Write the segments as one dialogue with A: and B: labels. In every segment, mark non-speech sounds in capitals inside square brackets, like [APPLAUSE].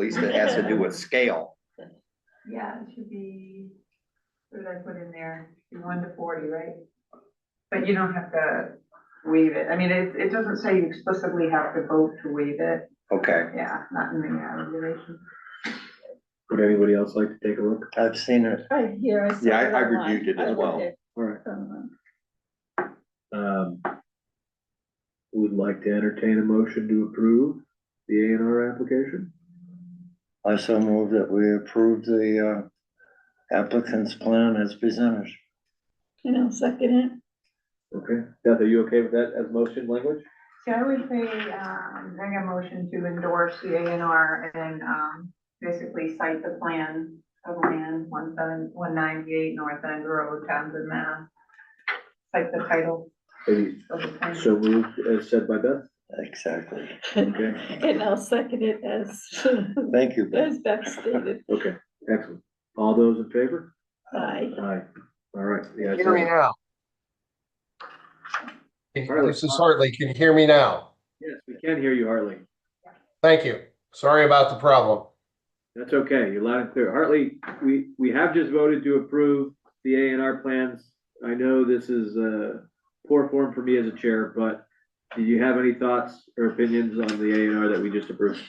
A: piece that has to do with scale.
B: Yeah, it should be, what did I put in there? Be One to forty, right? But you don't have to waive it. I mean, it, it doesn't say you explicitly have to vote to waive it.
A: Okay,
B: Yeah, not in the uh, regulation.
C: Would anybody else like to take a look?
D: I've seen it.
E: Right here, I saw
A: Yeah, I-
E: it
A: I
E: online.
A: reviewed it
E: I
A: as well.
E: looked
C: All right.
E: at, um,
C: Um, would like to entertain a motion to approve the A and R application?
D: I so move that we approve the uh, applicant's plan as presented.
E: You know, second it.
C: Okay, Beth, are you okay with that as motion language?
B: See, I would say, um, bring a motion to endorse the A and R and, um, basically cite the plan of land, one seven, one ninety-eight North End Road, Townsend, Mass. Cite the title
C: Maybe
B: of the plan.
C: so moved as said by Beth?
D: Exactly.
C: Okay,
E: [LAUGHS] And I'll second it as, [LAUGHS]
D: Thank you. Beth.
E: as Beth stated.
C: okay, excellent. All those in favor?
E: Aye.
C: Aye. All right. the ayes
F: Hear me
C: have it.
F: now. This is Hartley. Can you hear me now?
C: Yes, we can hear you, Hartley.
F: Thank you. Sorry about the problem.
C: That's okay, you're loud and clear. Hartley, we, we have just voted to approve the A and R plans. I know this is, uh, poor form for me as a chair, but do you have any thoughts or opinions on the A and R that we just approved?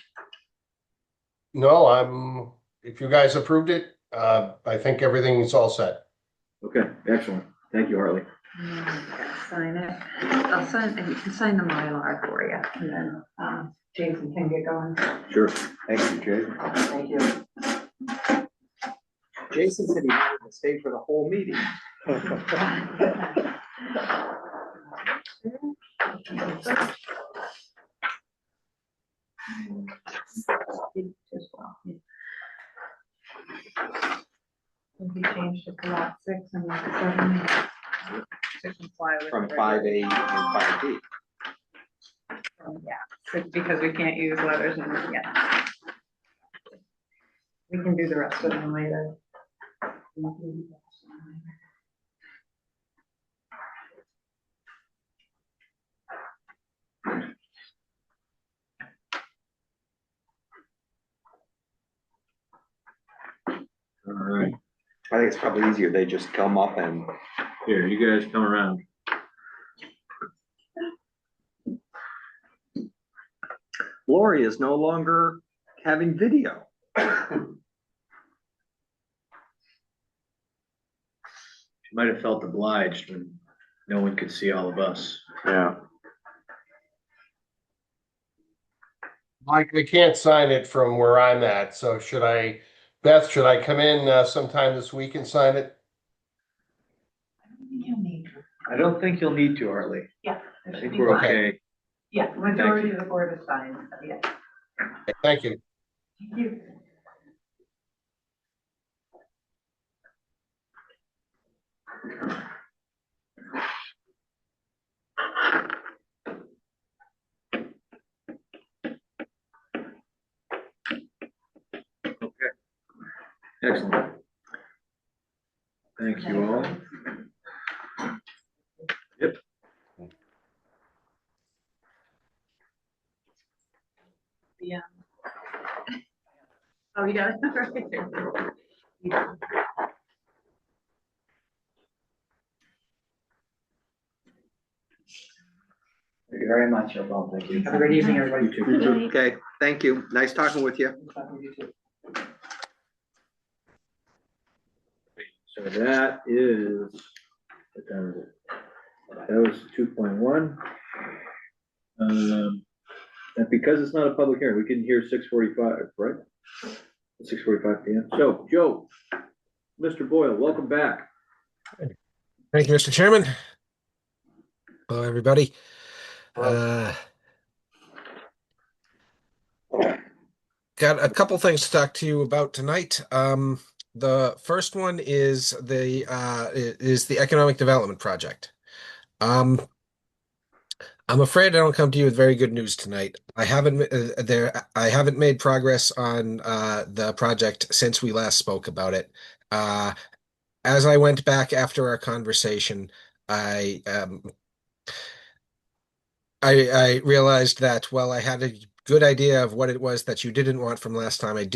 F: No, I'm, if you guys approved it, uh, I think everything is all set.
C: Okay, excellent. Thank you, Hartley.
B: Sign it. I'll sign, you can sign the Mylar for you, and then, um, Jason can get going.
C: Sure.
D: Thank you, Jake.
B: Thank you.
A: Jason said he wanted to stay for the whole meeting.
B: As well. Will be changed to lot six and lot seven. To comply with.
A: From
B: the
A: five A and five B.
B: regulations. Yeah, it's because we can't use letters and, yeah. We can do the rest of them later.
C: All right,
A: I think it's probably easier, they just come up and,
C: here, you guys come around.
A: Lori is no longer having video.
C: She Might have felt obliged when no one could see all of us.
A: Yeah.
F: Mike, I can't sign it from where I'm at, so should I, Beth, should I come in uh, sometime this week and sign it?
B: You need.
C: I don't think you'll need to, Hartley. I think we're okay.
B: Yeah, majority of the board is signed, yeah.
F: Thank you.
B: Thank you.
C: Excellent. Thank you all.
B: Oh, you got it [LAUGHS] right there.
D: Thank you very much, you're welcome. Thank you.
G: Have a great evening, everybody.
C: You too.
A: Okay, thank you, nice talking with you.
C: So that is, what time is it? that was two point one. Um, and because it's not a public hearing, we can hear six forty-five, right? Six forty-five P M. So, Joe, Mr. Boyle, welcome back.
H: Thank you, Mr. Chairman. Hello, everybody. Uh, Got a couple things to talk to you about tonight. Um, the first one is the, uh, i- is the Economic Development Project. Um, I'm afraid I don't come to you with very good news tonight. I haven't, uh, there, I haven't made progress on, uh, the project since we last spoke about it. Uh, as I went back after our conversation, I um I I realized that while I had a good idea of what it was that you didn't want from last time, I